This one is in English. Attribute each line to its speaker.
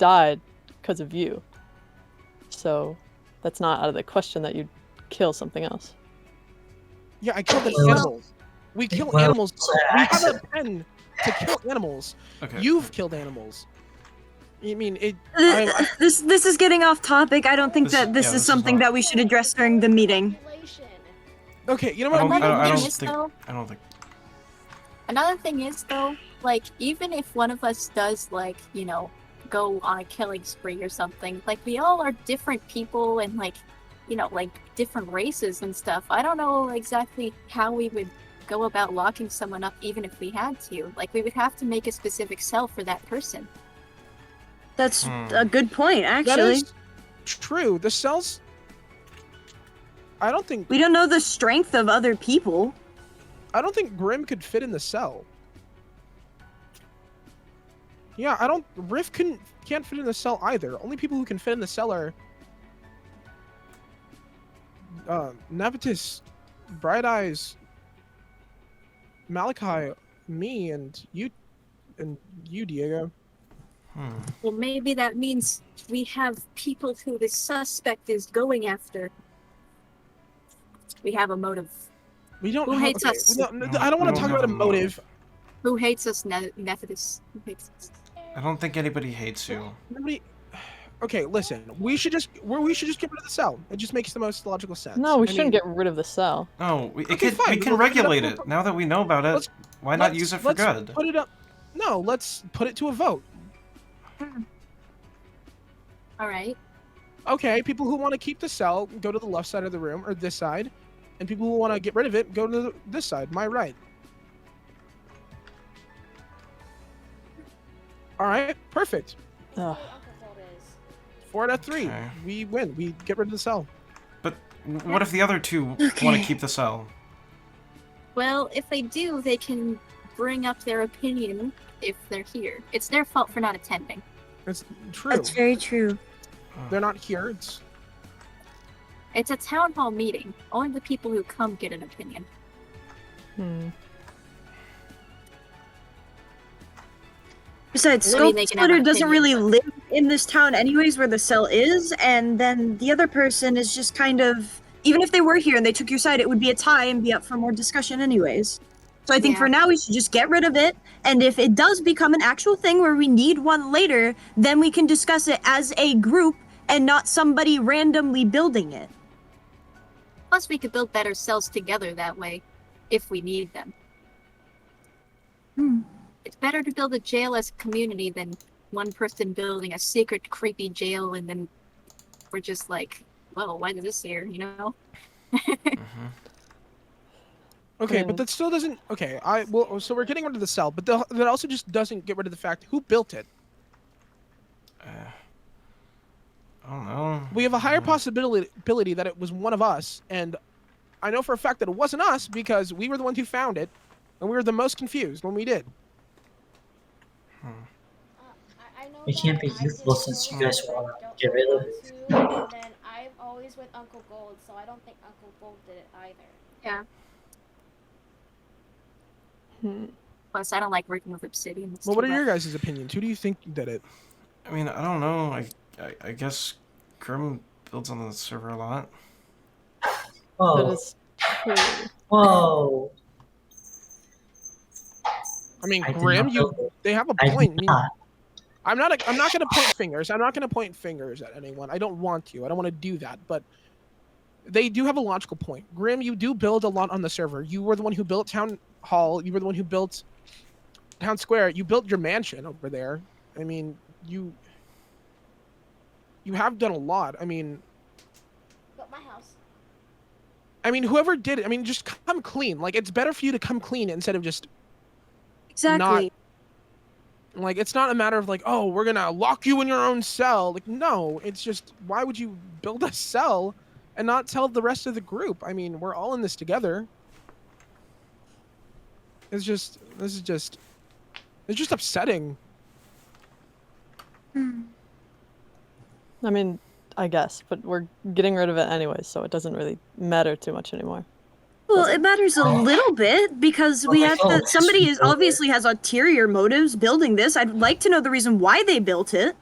Speaker 1: died because of you. So that's not out of the question that you'd kill something else.
Speaker 2: Yeah, I killed an
Speaker 3: Well-
Speaker 2: animal. We kill
Speaker 3: well,
Speaker 2: animals. We have a
Speaker 3: accident.
Speaker 2: pen to kill animals.
Speaker 4: Okay.
Speaker 2: You've killed animals. I mean, it.
Speaker 5: Th- uh,
Speaker 2: I-
Speaker 5: This this is getting off topic. I don't think
Speaker 4: This-
Speaker 5: that this
Speaker 4: yeah,
Speaker 5: is
Speaker 4: this is
Speaker 5: something
Speaker 4: not-
Speaker 5: that we should address during the meeting.
Speaker 2: Okay, you know
Speaker 4: I
Speaker 2: what?
Speaker 4: don't- I
Speaker 2: I'm
Speaker 4: don't- I
Speaker 2: gonna
Speaker 4: don't
Speaker 2: just-
Speaker 4: think-
Speaker 6: though,
Speaker 4: I don't think.
Speaker 6: another thing is though, like even if one of us does like you know go on a killing spree or something, like we all are different people and like you know like different races and stuff. I don't know exactly how we would go about locking someone up even if we had to. Like we would have to make a specific cell for that person.
Speaker 5: That's
Speaker 4: Hmm.
Speaker 5: a good point,
Speaker 2: That
Speaker 5: actually.
Speaker 2: is true. The cells. I don't think
Speaker 5: We don't know the strength of other people.
Speaker 2: I don't think Grim could fit in the cell. Yeah, I don't. Riff couldn't can't fit in the cell either. Only people who can fit in the cell are uh, Navitus, Bright Eyes, Malachi, me, and you, and you, Diego.
Speaker 4: Hmm.
Speaker 6: Well, maybe that means we have people who the suspect is going after. We have a motive.
Speaker 2: We don't.
Speaker 6: Who
Speaker 2: know-
Speaker 6: hates
Speaker 2: okay,
Speaker 6: us?
Speaker 2: we don't- no, I don't want
Speaker 4: We
Speaker 2: to talk
Speaker 4: have
Speaker 2: about a motive.
Speaker 6: Who hates us, ne- Methodist? Who hates us?
Speaker 4: I don't think anybody hates you.
Speaker 2: Nobody. Okay, listen. We should just we we should just get rid of the cell. It just makes the most logical sense.
Speaker 1: No, we
Speaker 2: I
Speaker 1: shouldn't
Speaker 2: mean-
Speaker 1: get rid of the cell.
Speaker 4: No, we, it
Speaker 2: Okay,
Speaker 4: can, we
Speaker 2: fine,
Speaker 4: can
Speaker 2: we'll-
Speaker 4: regulate
Speaker 2: we'll-
Speaker 4: it. Now that we know about it,
Speaker 2: Let's-
Speaker 4: why not
Speaker 2: let's-
Speaker 4: use it for
Speaker 2: let's
Speaker 4: good?
Speaker 2: Put it up. No, let's put it to a vote.
Speaker 6: All right.
Speaker 2: Okay, people who want to keep the cell go to the left side of the room or this side, and people who want to get rid of it go to the, this side, my right. All right, perfect.
Speaker 1: Ugh.
Speaker 2: Four out of three.
Speaker 4: Okay.
Speaker 2: We win. We get rid of the cell.
Speaker 4: But what if the other two want to
Speaker 5: Okay.
Speaker 4: keep the cell?
Speaker 6: Well, if they do, they can bring up their opinion if they're here. It's their fault for not attending.
Speaker 2: It's true.
Speaker 5: very true.
Speaker 2: They're not here. It's
Speaker 6: It's a town hall meeting. Only the people who come get an opinion.
Speaker 1: Hmm.
Speaker 5: Besides,
Speaker 6: I mean,
Speaker 5: Skull
Speaker 6: they can have an
Speaker 5: Splitter doesn't
Speaker 6: opinion,
Speaker 5: really
Speaker 6: but-
Speaker 5: live in this town anyways where the cell is, and then the other person is just kind of even if they were here and they took your side, it would be a tie and be up for more discussion anyways. So I think
Speaker 6: Yeah.
Speaker 5: for now we should just get rid of it, and if it does become an actual thing where we need one later, then we can discuss it as a group and not somebody randomly building it.
Speaker 6: Plus, we could build better cells together that way if we need them.
Speaker 5: Hmm.
Speaker 6: It's better to build a jail as a community than one person building a secret, creepy jail and then we're just like, well, why is this here, you know?
Speaker 4: Mhm.
Speaker 2: okay, but
Speaker 1: Yeah.
Speaker 2: that still doesn't. Okay, I well, so we're getting rid of the cell, but the, that also just doesn't get rid of the fact who built it.
Speaker 4: Uh, I don't know.
Speaker 2: we have a higher
Speaker 4: Mm.
Speaker 2: possibility ability that it was one of us and i know for a fact that it wasn't us because we were the ones who found it and we were the most confused when we did
Speaker 3: We can't be youthful since you guys wanna get rid of it.
Speaker 7: And then I'm always with Uncle Gold, so I don't think Uncle Gold did it either.
Speaker 1: Hmm.
Speaker 6: Plus, I don't like working with obsidian. It's
Speaker 2: well
Speaker 6: too
Speaker 2: what are your
Speaker 6: rough.
Speaker 2: guys' opinions who do you think did it
Speaker 4: I mean, I don't know. I, I, I guess Grim builds on the server a lot.
Speaker 2: Oh.
Speaker 1: That
Speaker 3: Whoa,
Speaker 1: is true.
Speaker 3: whoa.
Speaker 2: i mean
Speaker 3: I did
Speaker 2: grim
Speaker 3: not
Speaker 2: you
Speaker 3: know.
Speaker 2: they have a
Speaker 3: I
Speaker 2: point
Speaker 3: did
Speaker 2: I mean,
Speaker 3: not.
Speaker 2: i'm not a, i'm not going to point fingers i'm not going to point fingers at anyone i don't want to i don't want to do that but they do have a logical point grim you do build a lot on the server you were the one who built town hall you were the one who built town square you built your mansion over there i mean you you have done a lot i mean
Speaker 7: But my house.
Speaker 2: i mean whoever did it i mean just come clean like it's better for you to come clean instead of just
Speaker 5: Exactly.
Speaker 2: like it's not a matter of like oh we're gonna lock you in your own cell like no it's just why would you build a cell and not tell the rest of the group i mean we're all in this together it's just this is just it's just upsetting
Speaker 1: I mean, I guess, but we're getting rid of it anyway, so it doesn't really matter too much anymore.
Speaker 5: Well, it matters a little bit because we
Speaker 3: Oh,
Speaker 5: have to.
Speaker 3: it's
Speaker 5: Somebody is
Speaker 3: over.
Speaker 5: obviously has ulterior motives building this. I'd like to know the reason why they built it.